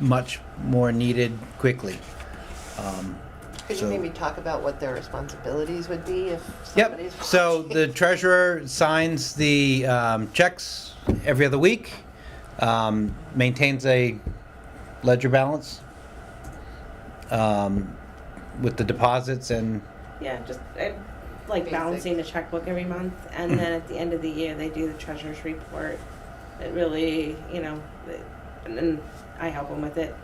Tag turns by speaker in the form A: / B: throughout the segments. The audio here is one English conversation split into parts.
A: much more needed quickly. Um,
B: Could
A: So-
B: you maybe talk about what their responsibilities would be if somebody's
A: Yep, so the treasurer signs the um, checks every other week, um, maintains a ledger balance um, with the deposits and,
C: Yeah, just I like
B: Basic.
C: balancing the checkbook every month, and then at the end of the year they do the treasurer's report. It really, you know, it- and then I help them with it,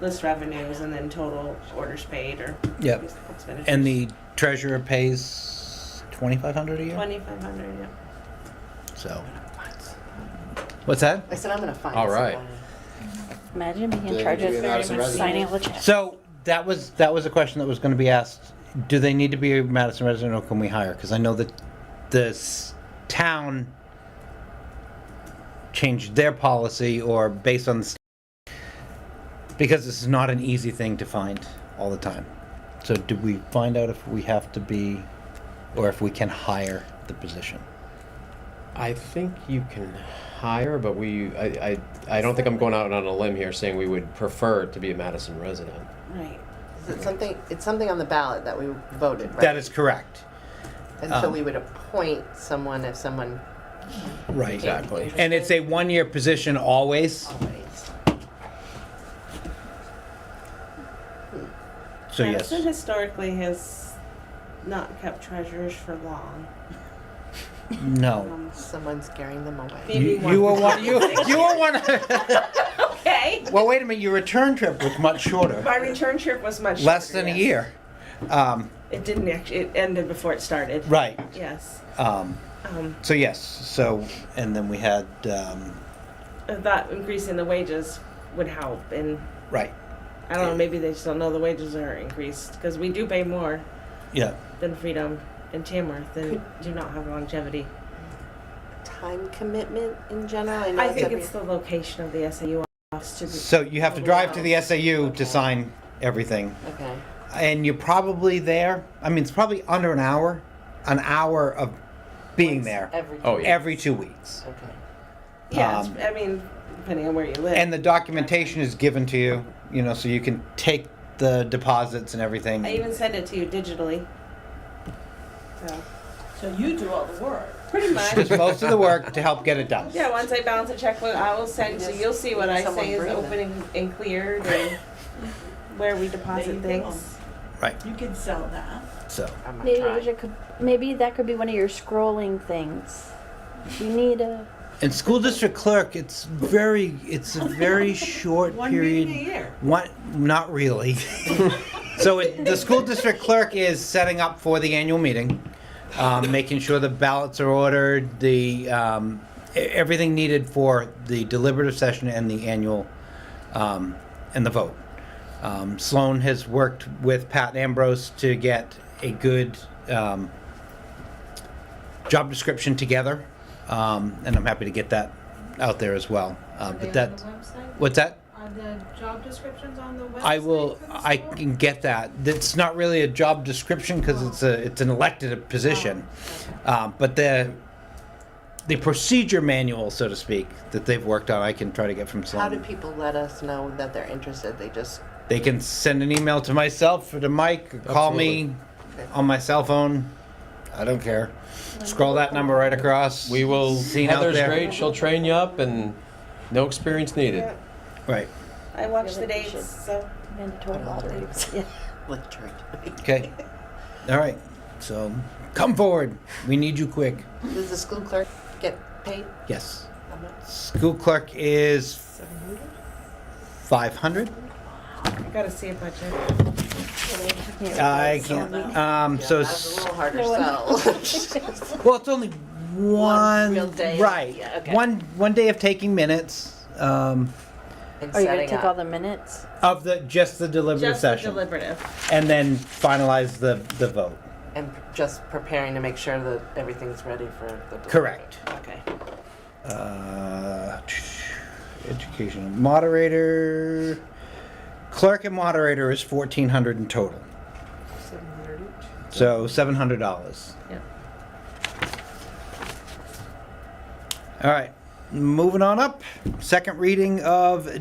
C: list revenues, and then total orders paid or
A: Mm-hmm. Yep.
C: expenditures.
A: and the treasurer pays 2,500 a year,
C: twenty five hundred. Yeah.
A: so. What's that?
B: I said I'm gonna find.
D: All right.
B: someone."
E: Imagine being in
D: Then
E: charge of
D: you're not
E: pretty
D: some
E: much
D: resident.
E: signing all the checks.
A: So that was, that was a question that was going to be asked. Do they need to be a Madison resident or can we hire? Because I know that the s- town changed their policy or based on, the s- because this is not an easy thing to find all the time. So did we find out if we have to be, or if we can hire the position?
D: I think you can hire, but we, I, I, I don't think I'm going out on a limb here saying we would prefer to be a Madison resident.
C: Right.
B: Is it something, it's something on the ballot that we voted, right?
A: That is correct.
B: And so
A: um,
B: we would appoint someone if someone
A: Right.
B: Exactly.
A: And it's a one-year position always,
B: always.
A: so yes.
C: Madison historically has not kept treasurers for long.
A: No.
C: Um,
B: Someone scaring them away.
C: maybe
A: You, you were
C: one.
A: one, you, you were one,
C: okay.
A: well, wait a minute, your return trip was much shorter,
C: My return trip was much
A: less
C: shorter,
A: than a
C: yes.
A: year. Um,
C: It didn't actually. It ended before it started.
A: right,
C: Yes.
A: um,
C: Um,
A: so yes, so, and then we had, um,
C: I thought increasing the wages would help, and
A: right,
C: I don't know, maybe they just don't know the wages are increased because we do pay more
A: yeah.
C: than Freedom and Tamworth and do not have longevity.
B: Time commitment in general, I know
C: I
B: it's
C: think
B: every.
C: it's the location of the SAU office to be.
A: So you have to drive to the SAU to sign everything,
B: Okay,
A: and you're probably there, I mean, it's probably under an hour, an hour of being there,
B: every.
D: Oh, yeah.
A: every two weeks.
B: Okay.
C: yeah,
A: um,
C: it's- I mean, depending on where you live.
A: And the documentation is given to you, you know, so you can take the deposits and everything.
C: I even sent it to you digitally. So
F: So you do all the work.
C: pretty much.
A: Does most of the work to help get it done.
C: Yeah, once I balance a checkbook, I will send, so you'll see what I
B: Someone
C: say is
B: bring them.
C: open and, and cleared and where we deposit
F: There you go.
C: things.
A: Right.
F: You can sell that.
A: So.
B: I'm not
E: Maybe
B: trying.
E: it could, maybe that could be one of your scrolling things. You need a
A: And school district clerk, it's very, it's a very short
F: One
A: period.
F: meeting a year.
A: What? Not really. so it, the school district clerk is setting up for the annual meeting, um, making sure the ballots are ordered, the um, e- everything needed for the deliberative session and the annual um, and the vote. Um, Sloan has worked with Pat Ambrose to get a good um, job description together, um, and I'm happy to get that out there as well. Uh,
G: Are
A: but
G: they on
A: that,
G: the website?
A: what's that?
G: Are the job descriptions on the website?
A: I will.
G: for the
A: I
G: school?
A: can get that. It's not really a job description because it's a it's an elected position, um, but the the procedure manual, so to speak, that they've worked on, I can try to get from
B: How do
A: someone.
B: people let us know that they're interested? They just,
A: They can send an email to myself or to Mike. Or call me on my cell phone. I don't care. Scroll that number right across.
D: We will,
A: Seen out
D: Heather's
A: there.
D: great, she'll train you up and no experience needed.
C: Yeah,
A: Right.
C: I watch the
E: Really we should-
C: dates, so.
E: mandatory lottery. Yeah.
B: literally.
A: Okay. All right. So come forward. We need you quick.
B: Does the school clerk get paid?
A: Yes.
B: How much?
A: School clerk is five hundred.
C: I gotta see a budget.
A: I can't. Um, so,
B: Yeah, That's a
A: s-
B: little harder sell.
E: No one- Oh,
A: well, it's only one,
B: real day.
A: right?
B: Yeah, okay.
A: One one day of taking minutes um,
B: And
E: Are
B: setting
E: you Oh, gonna take
B: up.
E: all the minutes?
A: of the just the deliberative
C: Just the
A: session,
C: deliberative.
A: and then finalize the the vote.
B: And just preparing to make sure that everything's ready for the.
A: Correct.
B: Okay.
A: Uh, education moderator, clerk and moderator is fourteen hundred in total. So seven hundred dollars.
C: Yep.
A: All right, moving on up. Second reading of